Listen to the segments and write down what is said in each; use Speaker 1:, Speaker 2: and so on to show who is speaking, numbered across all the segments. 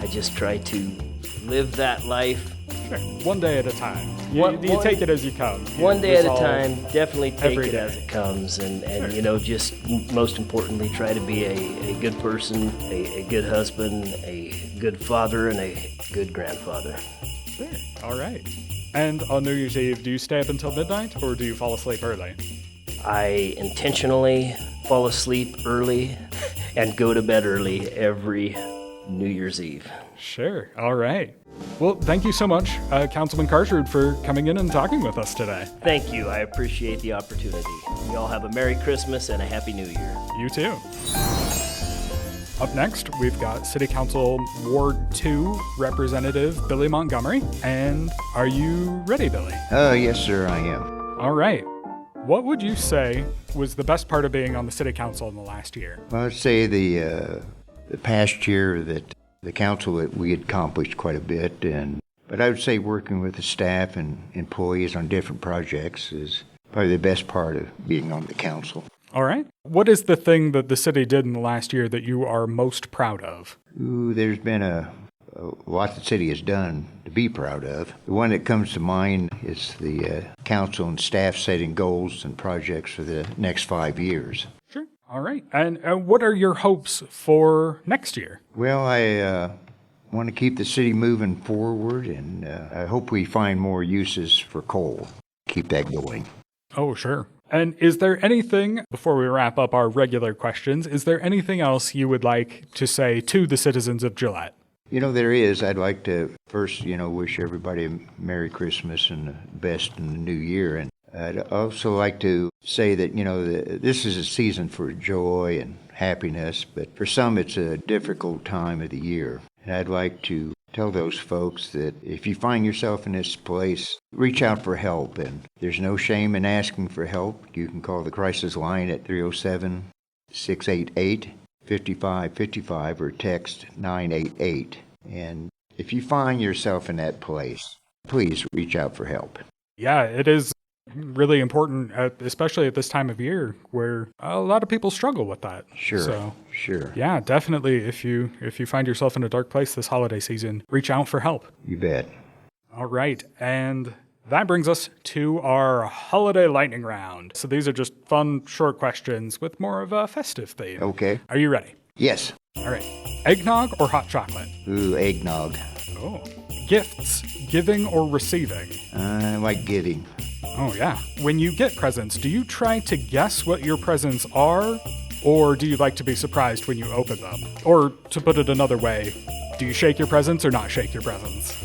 Speaker 1: I just try to live that life
Speaker 2: Sure. One day at a time. You,
Speaker 1: One-
Speaker 2: you
Speaker 1: one-
Speaker 2: take it as you come. You
Speaker 1: one day at a
Speaker 2: resolve-
Speaker 1: time definitely take
Speaker 2: every
Speaker 1: it
Speaker 2: day.
Speaker 1: as it comes and, and you know just m- most importantly try to be a, a good person a, a good husband a good father and a good grandfather
Speaker 2: Sure. All right. And on New Year's Eve, do you stay up until midnight or do you fall asleep early?
Speaker 1: i intentionally fall asleep early and go to bed early every new year's eve
Speaker 2: Sure. All right. Well, thank you so much, uh, Councilman Carshard, for coming in and talking with us today.
Speaker 1: thank you i appreciate the opportunity y'all have a merry christmas and a happy new year
Speaker 2: You too. Up next, we've got City Council Ward 2 Representative Billy Montgomery. And are you ready, Billy?
Speaker 3: Oh, yes, sir, I am.
Speaker 2: All right. What would you say was the best part of being on the City Council in the last year?
Speaker 3: I would say the, uh, the past year that the council that we accomplished quite a bit, and but I would say working with the staff and employees on different projects is probably the best part of being on the council.
Speaker 2: All right. What is the thing that the city did in the last year that you are most proud of?
Speaker 3: Ooh, there's been a, a lot the city has done to be proud of. The one that comes to mind is the uh, council and staff setting goals and projects for the next five years.
Speaker 2: Sure. All right. And uh, what are your hopes for next year?
Speaker 3: Well, I uh, want to keep the city moving forward, and uh, I hope we find more uses for coal. Keep that going.
Speaker 2: Oh, sure. And is there anything, before we wrap up our regular questions, is there anything else you would like to say to the citizens of Gillette?
Speaker 3: You know, there is. I'd like to first, you know, wish everybody a Merry Christmas and the best in the new year. And I'd also like to say that, you know, the, this is a season for joy and happiness, but for some it's a difficult time of the year. And I'd like to tell those folks that if you find yourself in this place, reach out for help. And there's no shame in asking for help. You can call the crisis line at 307 688 5555 or text 988. And if you find yourself in that place, please reach out for help.
Speaker 2: Yeah, it is really important, at, especially at this time of year where a lot of people struggle with that.
Speaker 3: Sure.
Speaker 2: So,
Speaker 3: Sure.
Speaker 2: yeah, definitely. If you if you find yourself in a dark place this holiday season, reach out for help.
Speaker 3: You bet.
Speaker 2: All right, and that brings us to our holiday lightning round. So these are just fun, short questions with more of a festive theme.
Speaker 3: Okay.
Speaker 2: Are you ready?
Speaker 3: Yes.
Speaker 2: All right. Eggnog or hot chocolate?
Speaker 3: Ooh, eggnog.
Speaker 2: Oh. Gifts, giving or receiving?
Speaker 3: I like giving.
Speaker 2: Oh, yeah. When you get presents, do you try to guess what your presents are? Or do you like to be surprised when you open them? Or to put it another way, do you shake your presents or not shake your presents?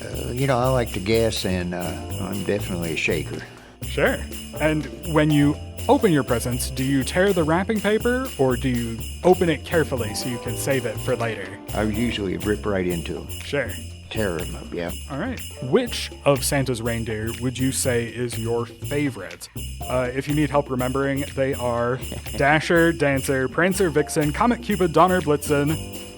Speaker 3: Uh, you know, I like to guess, and uh, I'm definitely a shaker.
Speaker 2: Sure. And when you open your presents, do you tear the wrapping paper or do you open it carefully so you can save it for later?
Speaker 3: I usually rip right into them,
Speaker 2: Sure.
Speaker 3: tear them up, yeah.
Speaker 2: All right. Which of Santa's reindeer would you say is your favorite? Uh, if you need help remembering, they are Dasher, Dancer, Prancer, Vixen, Comet Cupid, Donner, Blitzen,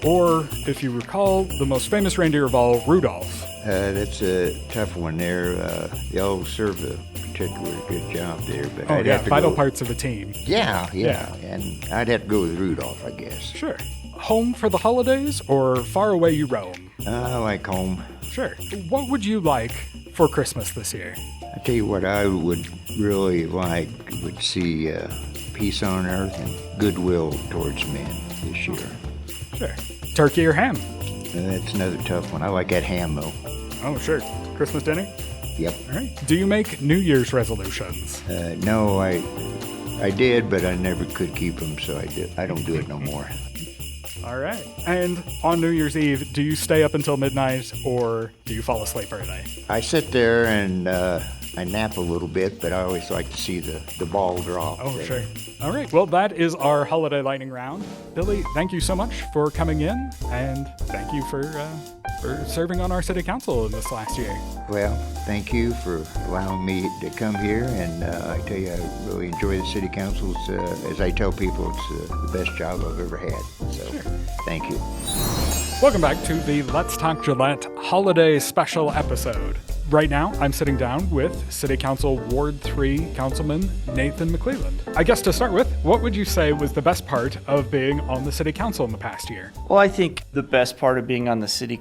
Speaker 2: or if you recall, the most famous reindeer of all, Rudolph.
Speaker 3: Uh, that's a tough one there. Uh, the old served a particularly good job there, but
Speaker 2: Oh,
Speaker 3: I'd
Speaker 2: yeah,
Speaker 3: have to
Speaker 2: vital
Speaker 3: go.
Speaker 2: parts of a team.
Speaker 3: Yeah,
Speaker 2: Yeah.
Speaker 3: yeah, and I'd have to go with Rudolph, I guess.
Speaker 2: Sure. Home for the holidays or far away you roam?
Speaker 3: I Ah, like home.
Speaker 2: Sure. What would you like for Christmas this year?
Speaker 3: I tell you what, I would really like would see uh, peace on earth and goodwill towards men this year.
Speaker 2: Sure. Turkey or ham?
Speaker 3: And that's another tough one. I like that ham though.
Speaker 2: Oh, sure. Christmas dinner?
Speaker 3: Yep.
Speaker 2: All right. Do you make New Year's resolutions?
Speaker 3: Uh, no, I I did, but I never could keep them, so I do, I don't do it no more.
Speaker 2: All right. And on New Year's Eve, do you stay up until midnight or do you fall asleep early?
Speaker 3: I sit there and uh, I nap a little bit, but I always like to see the, the ball drop.
Speaker 2: Oh,
Speaker 3: there.
Speaker 2: sure. All right. Well, that is our holiday lightning round. Billy, thank you so much for coming in and thank you for uh, for serving on our city council in this last year.
Speaker 3: Well, thank you for allowing me to come here, and uh, I tell you, I really enjoy the city councils. Uh, as I tell people, it's uh, the best job I've ever had. So, thank you.
Speaker 2: Welcome back to the Let's Talk Gillette holiday special episode. Right now, I'm sitting down with City Council Ward 3 Councilman Nathan McClelland. I guess to start with, what would you say was the best part of being on the City Council in the past year?
Speaker 4: Well, I think the best part of being on the city